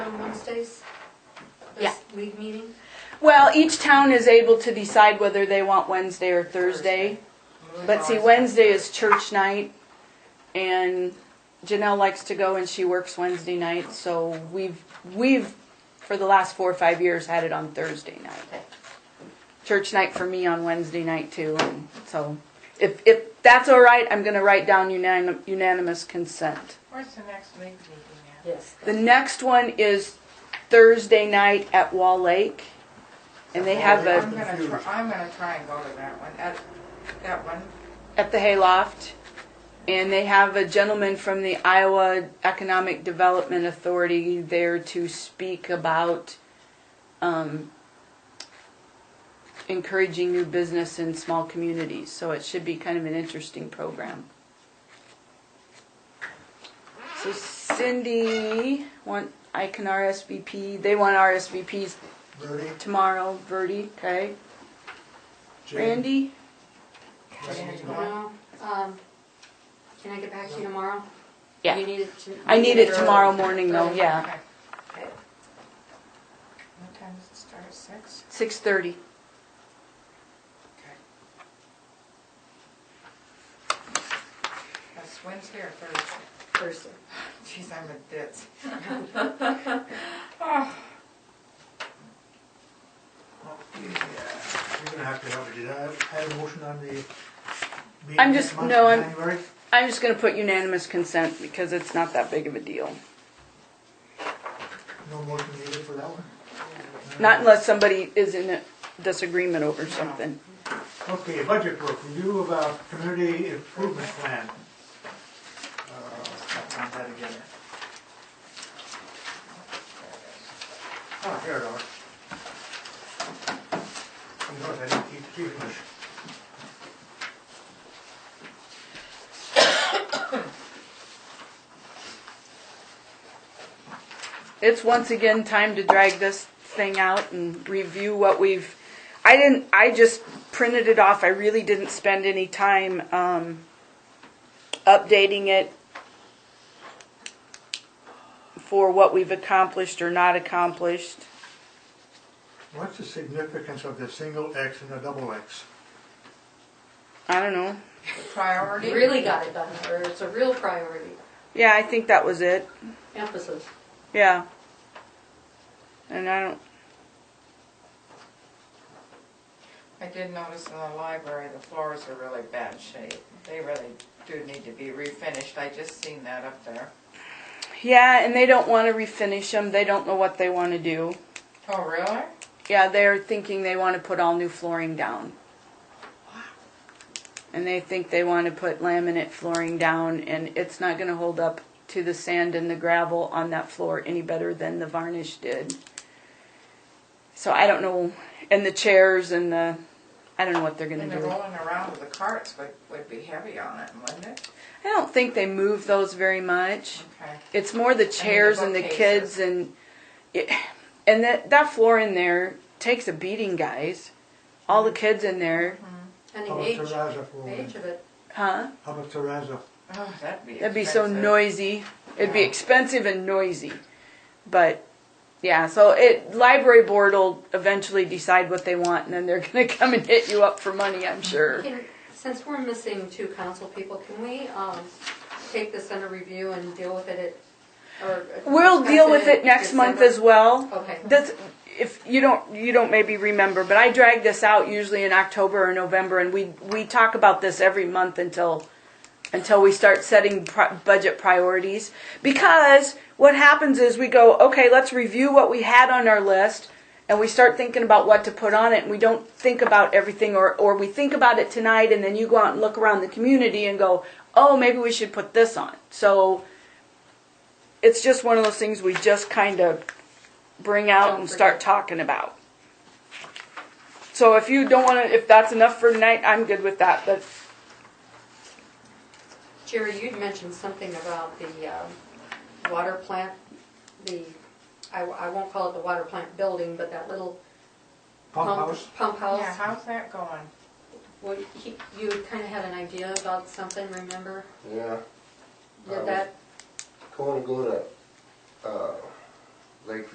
Wednesdays? Yeah. This league meeting? Well, each town is able to decide whether they want Wednesday or Thursday. But see, Wednesday is church night, and Janelle likes to go and she works Wednesday night, so we've, we've, for the last four or five years, had it on Thursday night. Okay. Church night for me on Wednesday night too, and so if, if that's all right, I'm gonna write down unanim- unanimous consent. Where's the next league meeting at? Yes. The next one is Thursday night at Wall Lake, and they have I'm a, gonna try, I'm gonna try and go to that one, at, that one. at the Hayloft, and they have a gentleman from the Iowa Economic Development Authority there to speak about um, encouraging new business in small communities. So it should be kind of an interesting program. So Cindy want I can RSVP. They want RSVPs Bernie, tomorrow. Verdi, okay. Jane, Randy. Randy, Mm-hmm. No, um, can I get back to you tomorrow? Yeah. You need it to. I need it tomorrow early. morning though. Yeah. Okay. Okay. What time does it start, at six? Six thirty. Okay. That's Wednesday or Thursday? Thursday. Jeez, I'm a ditz. Oh, You're gonna have to help me. Did I have a motion on the meeting I'm next just- month no, in I'm- January? I'm just gonna put unanimous consent because it's not that big of a deal. No motion needed for that one? Not unless somebody is in a disagreement over something. Okay, budget work, review about community improvement plan. Uh, Let's find that again. Oh, here it is. You know, I didn't keep keeping this. It's once again time to drag this thing out and review what we've, I didn't, I just printed it off. I really didn't spend any time, um, updating it for what we've accomplished or not accomplished. What's the significance of the single X and the double X? I don't know. Priority? You really got it done, or it's a real priority, Yeah, I think that was it. emphasis. Yeah. And I don't, I did notice in the library, the floors are really bad shape. They really do need to be refinished. I just seen that up there. Yeah, and they don't want to refinish them. They don't know what they want to do. Oh, really? Yeah, they're thinking they want to put all new flooring down. And they think they want to put laminate flooring down, and it's not going to hold up to the sand and the gravel on that floor any better than the varnish did. So I don't know. And the chairs and the. I don't know what they're going And to the do. I rolling around with the carts would, would be heavy on it, wouldn't it? don't think they move those very much. Okay. It's more the chairs and the bookcases. kids and it, and that that floor in there takes a beating, guys. All the kids in there, And the How about age, terrazzo for the women? age of it, huh? How about terrazzo? Oh, that'd be That'd be so expensive. noisy. It'd be Yeah. expensive and noisy, but yeah. So it library board will eventually decide what they want, and then they're gonna come and hit you up for money. I'm sure. can, since we're missing two council people, can we, um, take this under review and deal with it at, or? uh, We'll discuss deal with it in next month as December? well. Okay, That's if you don't you don't maybe remember, but I drag this out usually in October or November, and we we talk about this every month until until we start setting pri- budget priorities. Because what happens is we go, okay, let's review what we had on our list, and we start thinking about what to put on it, and we don't think about everything, or or we think about it tonight, and then you go out and look around the community and go, oh, maybe we should put this on. So. It's just one of those things we just kind of bring out and start talking about. So if you don't want to, if that's enough for tonight, I'm good with that. But Jerry, you'd mentioned something about the, um, water plant, the, I, I won't call it the water plant building, but that little Pump house? Pump Yeah, house. how's that going? Well, he, you kind of had an idea about something, remember? Yeah, Did Um, that going to go to, uh, Lake